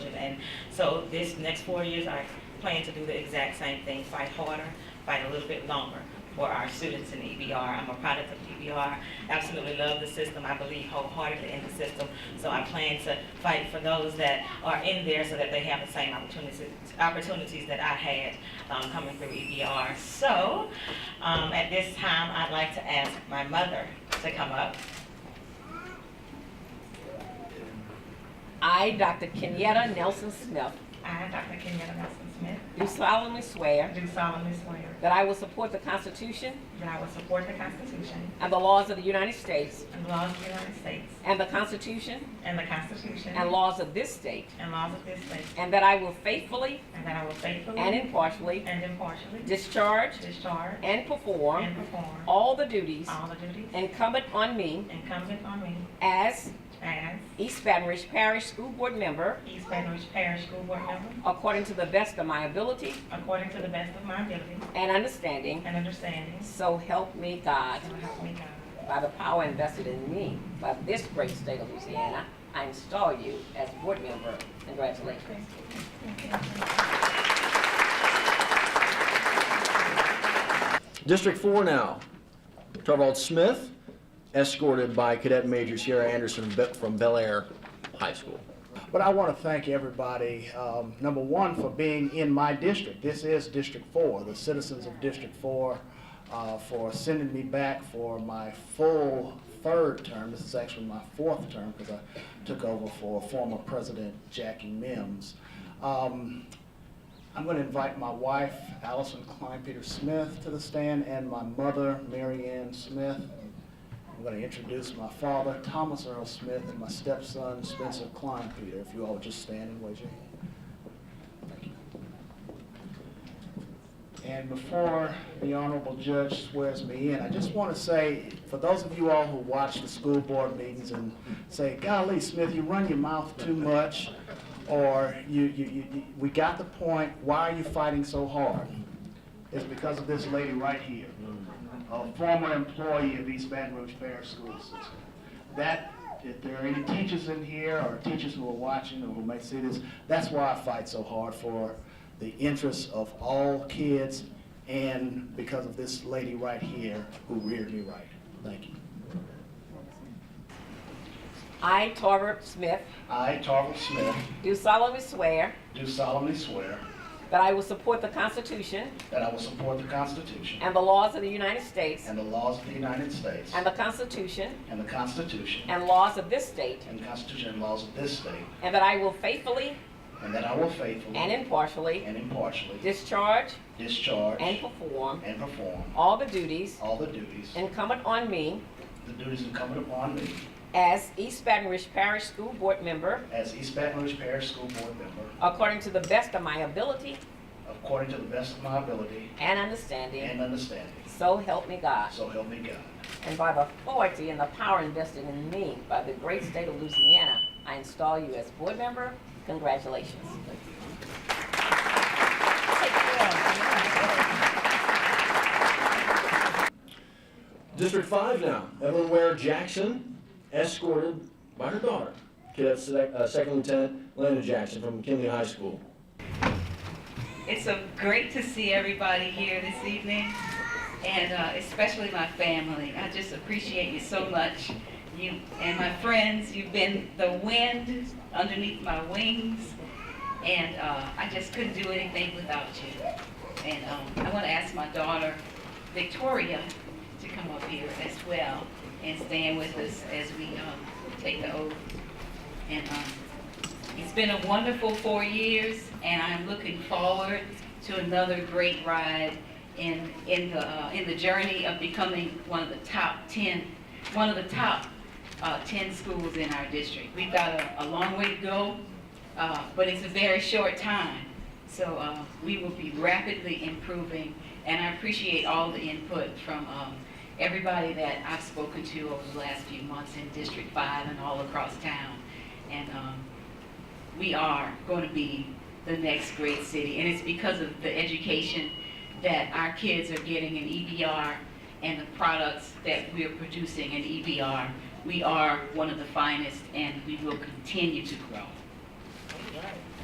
And so this next four years, I plan to do the exact same thing, fight harder, fight a little bit longer for our students in EBR. I'm a product of EBR, absolutely love the system, I believe wholeheartedly in the system. So I plan to fight for those that are in there so that they have the same opportunities, opportunities that I had um, coming through EBR. So um, at this time, I'd like to ask my mother to come up. I, Dr. Kenyetta Nelson Smith, I, Dr. Kenyatta Nelson Smith, do solemnly swear do solemnly swear that I will support the Constitution that I will support the Constitution and the laws of the United States and laws of the United States and the Constitution and the Constitution and laws of this state, and laws of this state, and that I will faithfully and that I will faithfully and impartially and impartially discharge discharge and perform and perform all the duties all the duties incumbent on me incumbent on me as as East Baton Rouge Parish School Board member East Baton Rouge Parish School Board member according to the best of my ability according to the best of my ability and understanding. and understanding. So help me God. So help me God. By the power invested in me by this great state of Louisiana, I install you as board member. Congratulations. District four now. Torvald Smith, escorted by Cadet Major Sierra Anderson Be- from Bel Air High School. But I want to thank everybody, um, number one, for being in my district. This is District Four, the citizens of District Four, uh, for sending me back for my full third term. This is actually my fourth term because I took over for former President Jackie Mims. Um, I'm going to invite my wife, Allison Klein Peter Smith, to the stand, and my mother, Mary Ann Smith. I'm going to introduce my father, Thomas Earl Smith, and my stepson, Spencer Klein Peter. If you all would just stand and raise your hand. Thank you. And before the honorable judge swears me in, I just want to say, for those of you all who watch the school board meetings and say, golly, Smith, you run your mouth too much, or you, you, you, you- we got the point, why are you fighting so hard? It's because of this lady right here, a former employee of East Baton Rouge Parish School System. That, if there are any teachers in here, or teachers who are watching, or who may see this, that's why I fight so hard for the interests of all kids, and because of this lady right here who reared me right. Thank you. I, Torvald Smith, I, Tarver Smith, do solemnly swear do solemnly swear that I will support the Constitution that I will support the Constitution and the laws of the United States and the laws of the United States and the Constitution and the Constitution and laws of this state, and the Constitution and laws of this state, and that I will faithfully and that I will faithfully and impartially and impartially discharge discharge and perform and perform all the duties all the duties, incumbent on me the duties incumbent upon me as East Baton Rouge Parish School Board member as East Baton Rouge Parish School Board member according to the best of my ability according to the best of my ability and understanding. and understanding. So help me God. So help me God. And by the authority and the power invested in me by the great state of Louisiana, I install you as board member. Congratulations. District five now. Evelyn Ware Jackson, escorted by her daughter, Cadet Sec- uh, Second Lieutenant Lana Jackson from McKinley High School. It's so great to see everybody here this evening, and uh, especially my family. I just appreciate you so much. You and my friends, you've been the wind underneath my wings, and uh, I just couldn't do anything without you. And um, I want to ask my daughter, Victoria, to come up here as well and stand with us as we um, take the oath. And um, it's been a wonderful four years, and I'm looking forward to another great ride in, in the, uh, in the journey of becoming one of the top 10, one of the top uh, 10 schools in our district. We've got a, a long way to go, uh, but it's a very short time. So uh, we will be rapidly improving, and I appreciate all the input from um, everybody that I've spoken to over the last few months in District 5 and all across town. And um, we are going to be the next great city. And it's because of the education that our kids are getting in EBR and the products that we are producing in E EBR. We are one of the finest and we will continue to grow.